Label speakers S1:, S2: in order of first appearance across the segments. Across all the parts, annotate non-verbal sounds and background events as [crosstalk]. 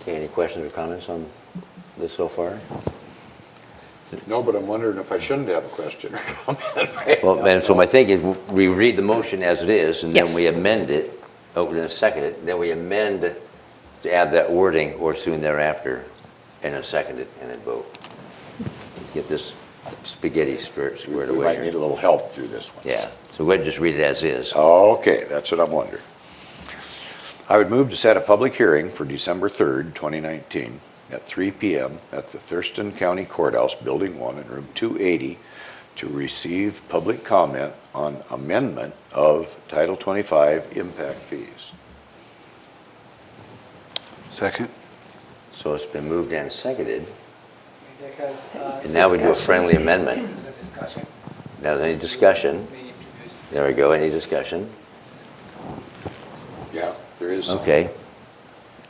S1: Okay, any questions or comments on this so far?
S2: No, but I'm wondering if I shouldn't have a question or [laughs] comment.
S1: Well, and so my thinking is, we read the motion as it is, and then
S3: Yes.
S1: we amend it, oh, then second it, then we amend it to add that wording or soon thereafter, and then second it, and then vote. Get this spaghetti spirit squared
S2: We might
S1: away.
S2: need
S1: here.
S2: a little help through this one.
S1: Yeah, so we'll just read it as is.
S2: Okay, that's what I'm wondering. I would move to set a public hearing for December 3rd, 2019, at 3 PM at the Thurston County Courthouse, Building 1, in Room 280, to receive public comment on amendment of Title 25 impact fees.
S4: Second?
S1: So it's been moved and seconded,
S5: Because, uh,
S1: and now we do a
S3: Discussion.
S1: friendly amendment.
S5: there's a discussion.
S1: Now, is there any discussion?
S5: We introduced
S1: There we go, any discussion?
S2: Yeah, there is. some.
S1: Okay.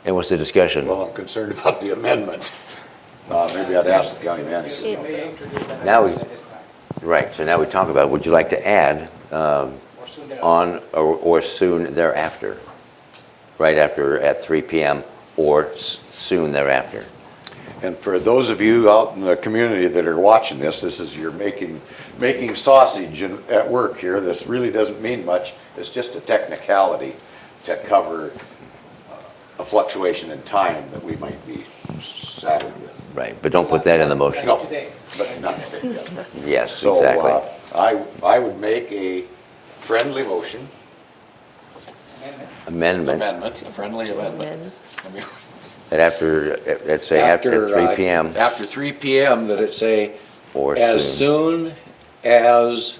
S1: And what's the discussion?
S2: Well, I'm concerned [laughs] about the amendment. Uh, Maybe I'd ask the county manager. about
S5: We
S2: that.
S5: introduced that
S1: Now we-
S5: amendment at this time,
S1: Right, so now we talk about, would you like to add um,
S5: or soon thereafter.
S1: on or or soon thereafter? Right after, at 3 PM, or s- soon thereafter?
S2: And for those of you out in the community that are watching this, this is, you're making, making sausage in- at work here. This really doesn't mean much. It's just a technicality to cover uh, a fluctuation in time that we might be saddled with.
S1: Right, but don't put that in the motion.
S2: No,
S5: Today.
S2: but not today, yeah.
S1: Yes,
S2: So
S1: exactly.
S2: uh, I, I would make a friendly motion,
S5: Amendment.
S1: Amendment,
S2: amendment, a friendly amendment. I mean,
S1: that after, uh, let's say after 3
S2: uh,
S1: PM,
S2: After 3 PM, that it say,
S1: or
S2: as
S1: soon,
S2: soon as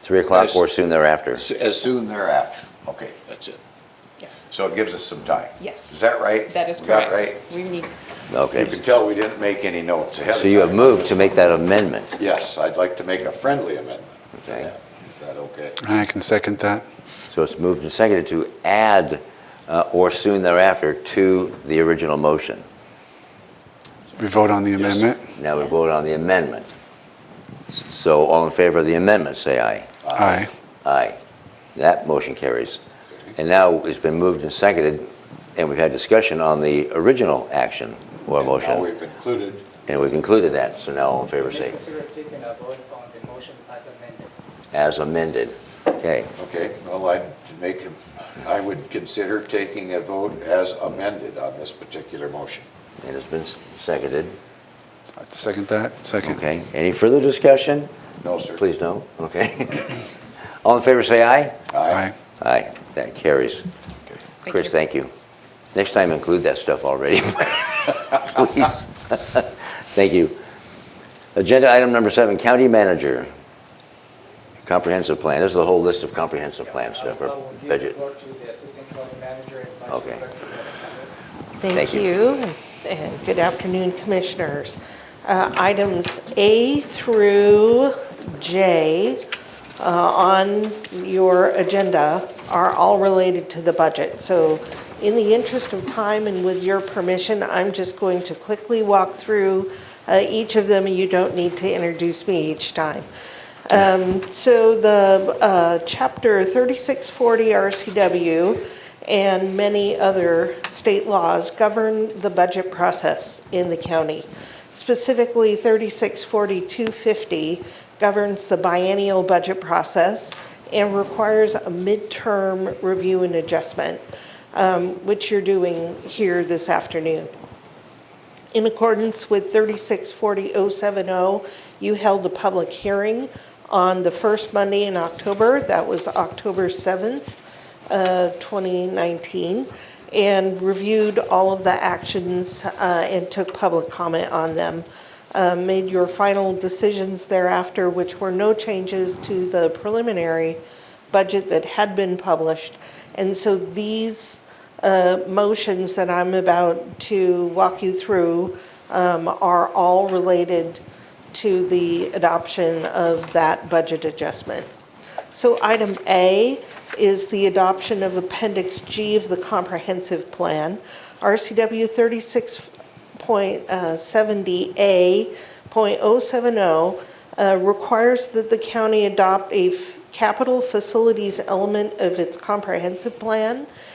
S1: 3 o'clock
S2: as-
S1: or soon thereafter.
S2: S- As soon thereafter. Okay, that's it.
S3: Yes.
S2: So it gives us some time.
S3: Yes.
S2: Is that right?
S3: That is
S2: We got it
S3: correct. We need.
S1: Okay.
S2: right? You can tell we didn't make any notes ahead of time.
S1: So you have moved to make that amendment.
S2: Yes, I'd like to make a friendly amendment. to
S1: Okay.
S2: that. Is that okay?
S4: I can second that.
S1: So it's moved and seconded to add uh, or soon thereafter to the original motion.
S4: We vote on the
S2: Yes.
S4: amendment?
S1: Now we vote on the amendment. So all in favor of the amendment, say aye.
S4: Aye.
S1: Aye. That motion carries. And now it's been moved and seconded, and we've had discussion on the original action or
S2: Now
S1: motion.
S2: we've included,
S1: And we've included that, so now all in favor
S5: We may
S1: say
S5: consider taking a vote on the motion as amended.
S1: as amended. Okay,
S2: okay, well, I'd make, a- I would consider taking a vote as amended on this particular motion.
S1: and it's been s- seconded.
S4: I'd Second that? Second.
S1: Okay, any further discussion?
S2: No, sir.
S1: Please no, okay. [laughs] All in favor say aye.
S4: Aye.
S1: Aye, that carries.
S3: Thank
S1: Chris,
S3: you.
S1: thank you. Next time include that stuff already, [laughs] please. Thank you. Agenda item number seven, county manager. Comprehensive plan, this is the whole list of comprehensive plan
S5: I
S1: stuff,
S5: will- I
S1: or
S5: will give the
S1: budget.
S5: floor to the assistant county manager and vice
S1: Okay.
S5: director of the
S1: Thank
S5: county.
S6: Thank
S1: you.
S6: you, and good afternoon, Commissioners. Uh, Items A through J uh, on your agenda are all related to the budget. So in the interest of time and with your permission, I'm just going to quickly walk through uh, each of them. You don't need to introduce me each time. Um, So the uh, Chapter 3640 RCW and many other state laws govern the budget process in the county. Specifically, 364250 governs the biennial budget process and requires a midterm review and adjustment, um, which you're doing here this afternoon. In accordance with 3640070, oh, you held a public hearing on the first Monday in October. That was October 7th, uh, 2019, and reviewed all of the actions uh, and took public comment on them. Uh, Made your final decisions thereafter, which were no changes to the preliminary budget that had been published. And so these uh, motions that I'm about to walk you through um, are all related to the adoption of that budget adjustment. So item A is the adoption of Appendix G of the Comprehensive Plan. RCW uh, 36.70A.070 uh, requires that the county adopt a f- capital facilities element of its comprehensive plan